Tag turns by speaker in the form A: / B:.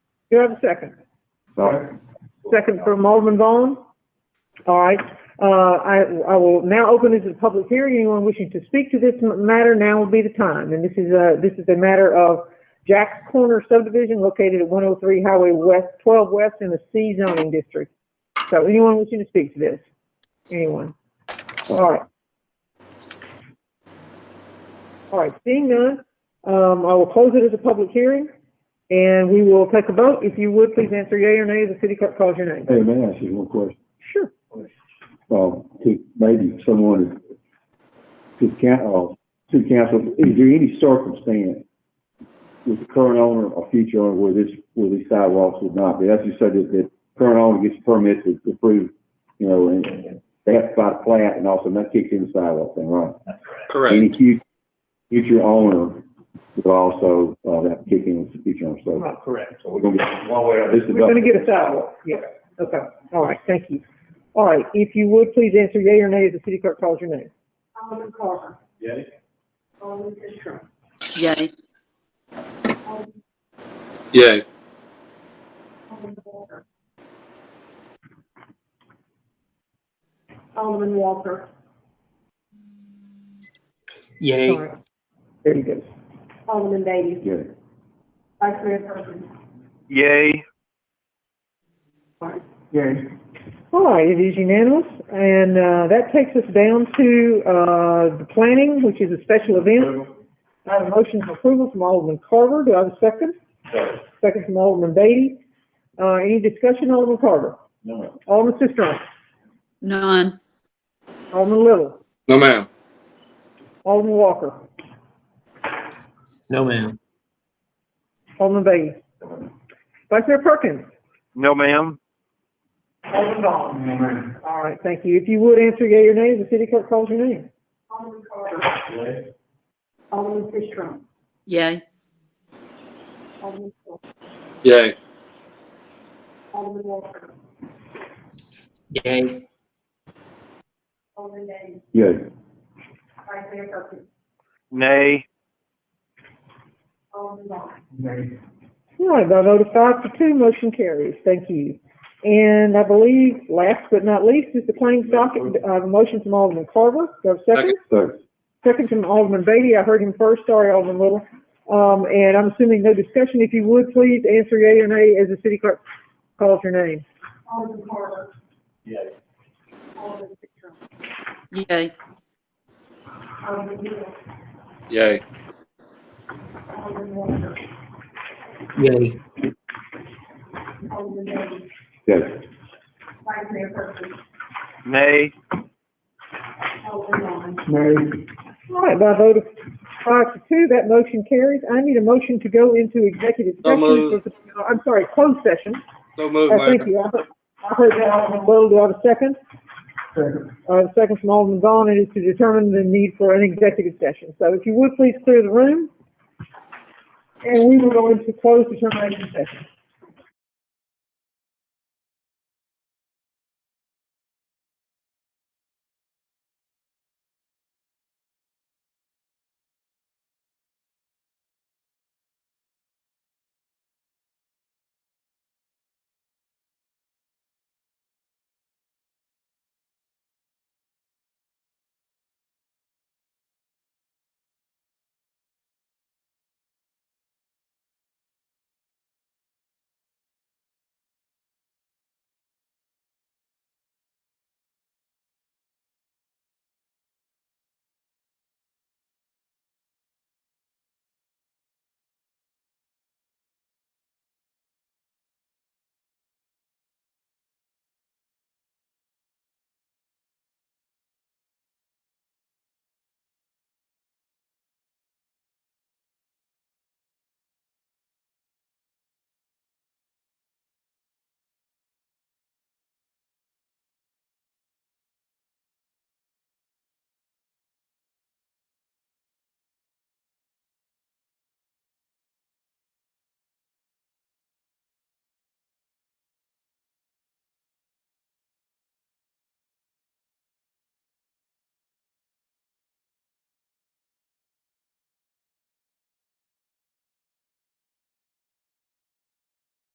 A: Do you have a second?
B: Second.
A: Second from Alderman Vaughn? All right, uh, I, I will now open this to the public hearing. Anyone wishing to speak to this m- matter, now would be the time. And this is a, this is a matter of Jack's Corner subdivision located at one oh three Highway West, twelve West in the C zoning district. So anyone wishing to speak to this? Anyone? All right. All right, seeing none, um, I will close it as a public hearing and we will take a vote. If you would, please answer yea or nay. The city clerk calls your name.
B: Hey, may I ask you one question?
A: Sure.
B: Well, to maybe someone to count, uh, to council, is there any circumstance with the current owner or future owner where this, where these sidewalks would not be? That's just so that the current owner gets permits to approve, you know, and they have to buy a plat and also that kicks in the sidewalk thing, right?
C: Correct.
B: Any fu- future owner will also, uh, have to kick in with the future owner, so.
A: Right.
D: Correct.
B: So we're gonna get one way or this is.
A: We're gonna get a sidewalk. Yeah, okay. All right, thank you. All right, if you would, please answer yea or nay. The city clerk calls your name.
E: Alderman Carter.
D: Yay.
E: Alderman Fisher.
F: Yay.
C: Yay.
E: Alderman Walker. Alderman Walker.
A: All
D: Yay.
A: right. There you go.
E: Alderman Davis.
B: Yeah.
E: Vice Mayor Perkins.
D: Yay.
B: Yeah.
A: All right, it is unanimous, and, uh, that takes us down to, uh, the planning, which is a special event. I have a motion for approval from Alderman Carver. Do I have a second? Second from Alderman Beatty. Uh, any discussion, Alderman Carver?
B: No.
A: Alderman Sistrunk?
F: None.
A: Alderman Little?
C: No, ma'am.
A: Alderman Walker?
D: No, ma'am.
A: Alderman Beatty? Vice Mayor Perkins?
D: No, ma'am.
A: Alderman Vaughn? All right, thank you. If you would answer yea or nay, the city clerk calls your name.
E: Alderman Carter. Alderman Fisher.
F: Yay.
E: Alderman Walker.
C: Yay.
E: Alderman Walker.
D: Yay.
E: Alderman Davis.
B: Yeah.
E: Vice Mayor Perkins.
D: Nay.
E: Alderman Vaughn.
A: All right, by a vote of five to two, motion carries. Thank you. And I believe, last but not least, is the claims docket, uh, the motion from Alderman Carver. Do I have a second?
B: So,
A: Second from Alderman Beatty. I heard him first. Sorry, Alderman Little. Um, and I'm assuming no discussion. If you would, please answer yea or nay as the city clerk calls your name.
E: Alderman Carter. Yay. Alderman Fisher.
F: Yay.
E: Alderman Hill.
C: Yay.
E: Alderman Walker.
D: Yay.
E: Alderman Davis.
B: yeah.
E: Vice Mayor Perkins.
D: Nay.
E: Alderman Vaughn.
A: All right, by a vote of five to two, that motion carries. I need a motion to go into executive
C: So
A: session.
C: moved.
A: for- I'm sorry, closed session.
C: So moved,
A: Uh, thank
C: ma'am.
A: you. I heard- I heard that, Alderman Little. Do I have a second? Uh, the second from Alderman Vaughn, it is to determine the need for an executive session. So if you would, please clear the room. And we will go into closed determination session.